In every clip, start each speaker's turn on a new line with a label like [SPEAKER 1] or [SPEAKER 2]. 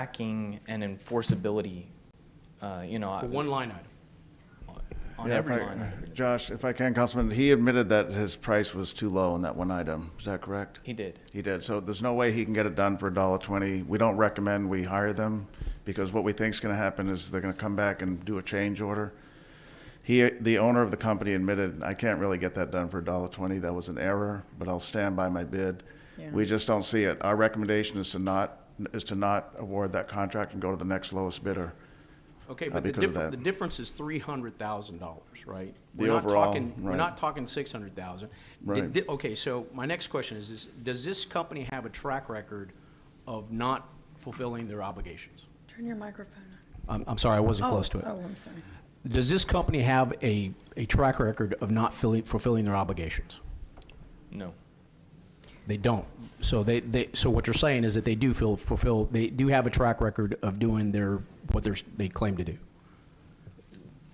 [SPEAKER 1] tracking and enforceability, uh, you know,
[SPEAKER 2] For
[SPEAKER 1] on-
[SPEAKER 2] one line item.
[SPEAKER 1] on
[SPEAKER 3] Yeah, if
[SPEAKER 1] every
[SPEAKER 3] I- uh,
[SPEAKER 1] line. item.
[SPEAKER 3] Josh, if I can, Councilman, he admitted that his price was too low on that one item. Is that correct?
[SPEAKER 1] He did.
[SPEAKER 3] He did. So there's no way he can get it done for a dollar twenty. We don't recommend we hire them because what we think is going to happen is they're going to come back and do a change order. He, the owner of the company admitted, I can't really get that done for a dollar twenty. That was an error, but I'll stand by my bid. We just don't see it. Our recommendation is to not, is to not award that contract and go to the next lowest bidder.
[SPEAKER 2] Okay,
[SPEAKER 3] Uh,
[SPEAKER 2] but the
[SPEAKER 3] because of
[SPEAKER 2] difference, the
[SPEAKER 3] that.
[SPEAKER 2] difference is three hundred thousand dollars, right?
[SPEAKER 3] The
[SPEAKER 2] We're not
[SPEAKER 3] overall,
[SPEAKER 2] talking- We're
[SPEAKER 3] right.
[SPEAKER 2] not talking six hundred thousand.
[SPEAKER 3] Right.
[SPEAKER 2] Okay, so my next question is, this: does this company have a track record of not fulfilling their obligations?
[SPEAKER 4] Turn your microphone on.
[SPEAKER 2] I'm, I'm sorry, I wasn't close to
[SPEAKER 4] Oh,
[SPEAKER 2] it.
[SPEAKER 4] Oh, I'm sorry.
[SPEAKER 2] Does this company have a, a track record of not filling, fulfilling their obligations?
[SPEAKER 1] No,
[SPEAKER 2] They don't. So they, they, so what you're saying is that they do feel, fulfill, they do have a track record of doing their, what they're, they claim to do.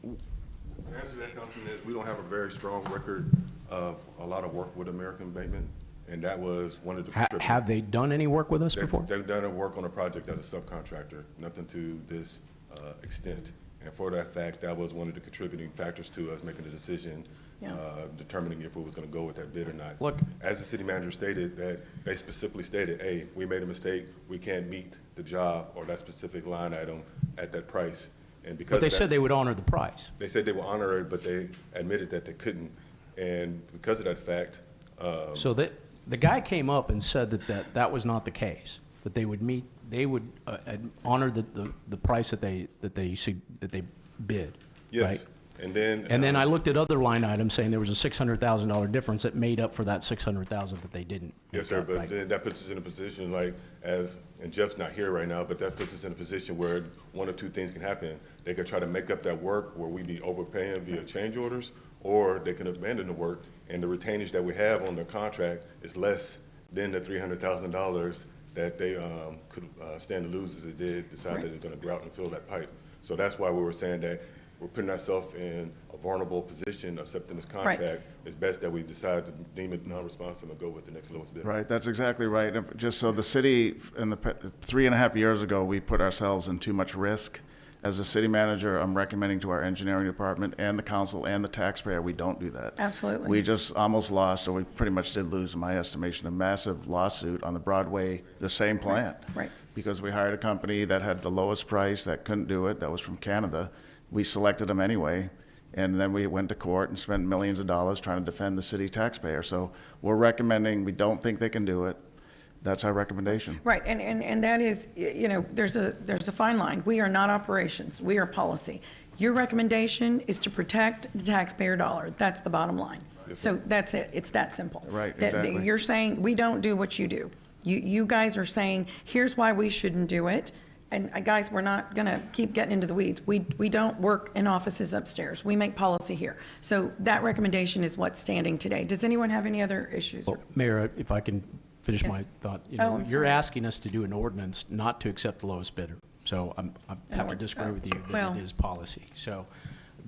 [SPEAKER 5] The answer to that, Councilman, is we don't have a very strong record of a lot of work with American Bateman, and that was one of the.
[SPEAKER 2] Ha- Have they done any work with us
[SPEAKER 5] They-
[SPEAKER 2] before?
[SPEAKER 5] They've done a work on a project as a subcontractor, nothing to this uh, extent. And for that fact, that was one of the contributing factors to us making the decision,
[SPEAKER 4] Yeah.
[SPEAKER 5] uh, determining if we was gonna go with that bid or not.
[SPEAKER 2] Look-
[SPEAKER 5] As the city manager stated, that they specifically stated, hey, we made a mistake, we can't meet the job or that specific line item at that price. And because
[SPEAKER 2] But they
[SPEAKER 5] of that-
[SPEAKER 2] said they would honor the price.
[SPEAKER 5] they said they were honored, but they admitted that they couldn't. And because of that fact, uh,
[SPEAKER 2] So that, the guy came up and said that, that, that was not the case, that they would meet, they would uh, ad- honor the, the, the price that they, that they, sug- that they bid, right?
[SPEAKER 5] yes. And then.
[SPEAKER 2] And then
[SPEAKER 5] uh,
[SPEAKER 2] I looked at other line items saying there was a six hundred thousand dollar difference that made up for that six hundred thousand that they didn't. make
[SPEAKER 5] Yes, sir,
[SPEAKER 2] up,
[SPEAKER 5] but
[SPEAKER 2] right?
[SPEAKER 5] then that puts us in a position like, as, and Jeff's not here right now, but that puts us in a position where one of two things can happen. They could try to make up that work where we be overpaying via change orders, or they can abandon the work, and the retainage that we have on their contract is less than the three hundred thousand dollars that they, um, could, uh, stand to lose if they did decide that they're gonna go out and fill that pipe. So that's why we were saying that we're putting ourselves in a vulnerable position, accepting this contract. It's best that we decide to deem it non-responsive and go with the next lowest bidder.
[SPEAKER 3] Right, that's exactly right. If- Just so the city, in the, pa- three and a half years ago, we put ourselves in too much risk. As a city manager, I'm recommending to our engineering department and the council and the taxpayer, we don't do that.
[SPEAKER 4] Absolutely.
[SPEAKER 3] We just almost lost, or we pretty much did lose, in my estimation, a massive lawsuit on the Broadway, the same plant.
[SPEAKER 4] right.
[SPEAKER 3] Because we hired a company that had the lowest price, that couldn't do it, that was from Canada. We selected them anyway, and then we went to court and spent millions of dollars trying to defend the city taxpayer. So we're recommending, we don't think they can do it. That's our recommendation.
[SPEAKER 4] Right, and, and, and that is, y- you know, there's a, there's a fine line. We are not operations, we are policy. Your recommendation is to protect the taxpayer dollar. That's the bottom line. So that's it, it's that simple.
[SPEAKER 3] Right,
[SPEAKER 4] That- that
[SPEAKER 3] exactly.
[SPEAKER 4] You're saying, we don't do what you do. You, you guys are saying, here's why we shouldn't do it. And uh, guys, we're not going to keep getting into the weeds. We, we don't work in offices upstairs. We make policy here. So that recommendation is what's standing today. Does anyone have any other issues? or-
[SPEAKER 2] Well, Mayor, uh, if I can finish my
[SPEAKER 4] Yes.
[SPEAKER 2] thought. you
[SPEAKER 4] Oh,
[SPEAKER 2] know,
[SPEAKER 4] I'm
[SPEAKER 2] You're
[SPEAKER 4] sorry.
[SPEAKER 2] asking us to do an ordinance not to accept the lowest bidder. So I'm, I have to
[SPEAKER 4] we're-
[SPEAKER 2] disagree with you that
[SPEAKER 4] uh, well-
[SPEAKER 2] it is policy. So,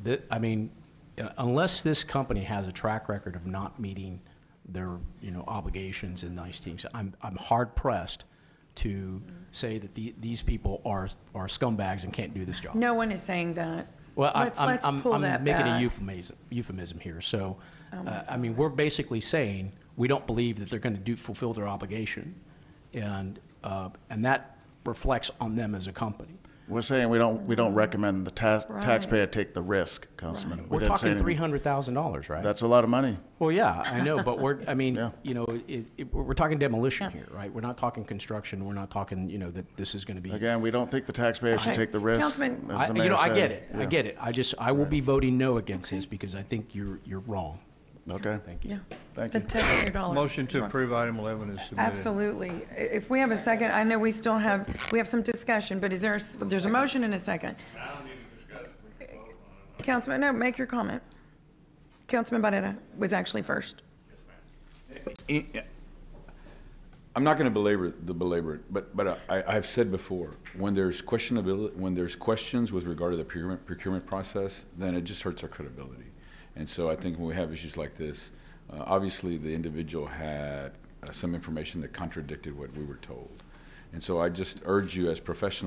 [SPEAKER 2] the- I mean, uh, unless this company has a track record of not meeting their, you know, obligations and nice teams, I'm, I'm hard pressed to say that the, these people are, are scumbags and can't do this job.
[SPEAKER 4] No one is saying that.
[SPEAKER 2] Well, I-
[SPEAKER 4] Let's-
[SPEAKER 2] I'm,
[SPEAKER 4] let's
[SPEAKER 2] I'm,
[SPEAKER 4] pull that
[SPEAKER 2] I'm making a
[SPEAKER 4] back. Oh
[SPEAKER 2] euphemism, euphemism here, so, uh, I mean, we're basically saying, we don't believe that they're gonna do, fulfill their obligation, and, uh, and that reflects on them as a company.
[SPEAKER 3] We're saying we don't, we don't recommend the ta-
[SPEAKER 4] Right.
[SPEAKER 3] taxpayer take the risk, Councilman. We
[SPEAKER 2] We're
[SPEAKER 3] didn't say
[SPEAKER 2] talking
[SPEAKER 3] anything.
[SPEAKER 2] three hundred thousand dollars, right?
[SPEAKER 3] That's a lot of money.
[SPEAKER 2] Well, yeah, I know, but we're, I mean,
[SPEAKER 3] Yeah.
[SPEAKER 2] you know, it, it, we're we're talking demolition here, right? We're not talking construction, we're not talking, you know, that this is gonna be.
[SPEAKER 3] Again, we don't think the taxpayer should
[SPEAKER 4] Okay.
[SPEAKER 3] take the risk.
[SPEAKER 4] Councilman-
[SPEAKER 3] as
[SPEAKER 2] I,
[SPEAKER 3] the
[SPEAKER 2] you
[SPEAKER 3] mayor
[SPEAKER 2] know, I
[SPEAKER 3] said.
[SPEAKER 2] get it, I
[SPEAKER 3] Yeah.
[SPEAKER 2] get it, I just, I will be voting no against this, because I think you're, you're wrong.
[SPEAKER 3] Okay.
[SPEAKER 2] Thank you.
[SPEAKER 4] Yeah.
[SPEAKER 3] Thank
[SPEAKER 4] The
[SPEAKER 3] you.
[SPEAKER 4] taxpayer dollar.
[SPEAKER 6] Motion to
[SPEAKER 4] Sure.
[SPEAKER 6] approve item 11 is submitted.
[SPEAKER 4] Absolutely. I- If we have a second, I know we still have, we have some discussion, but is there, a s- there's a motion and a second.
[SPEAKER 7] I don't need to discuss, it. we can vote on it.
[SPEAKER 4] Councilman, no, make your comment. Councilman Barrera was actually first.
[SPEAKER 7] I'm not going to belabor the belabor it, but but I, I've said before when there's questionability, when there's questions with regard to the procurement procurement process, then it just hurts our credibility. And so I think when we have issues like this, uh, obviously the individual had uh, some information that contradicted what we were told, And so I just urge you as professionals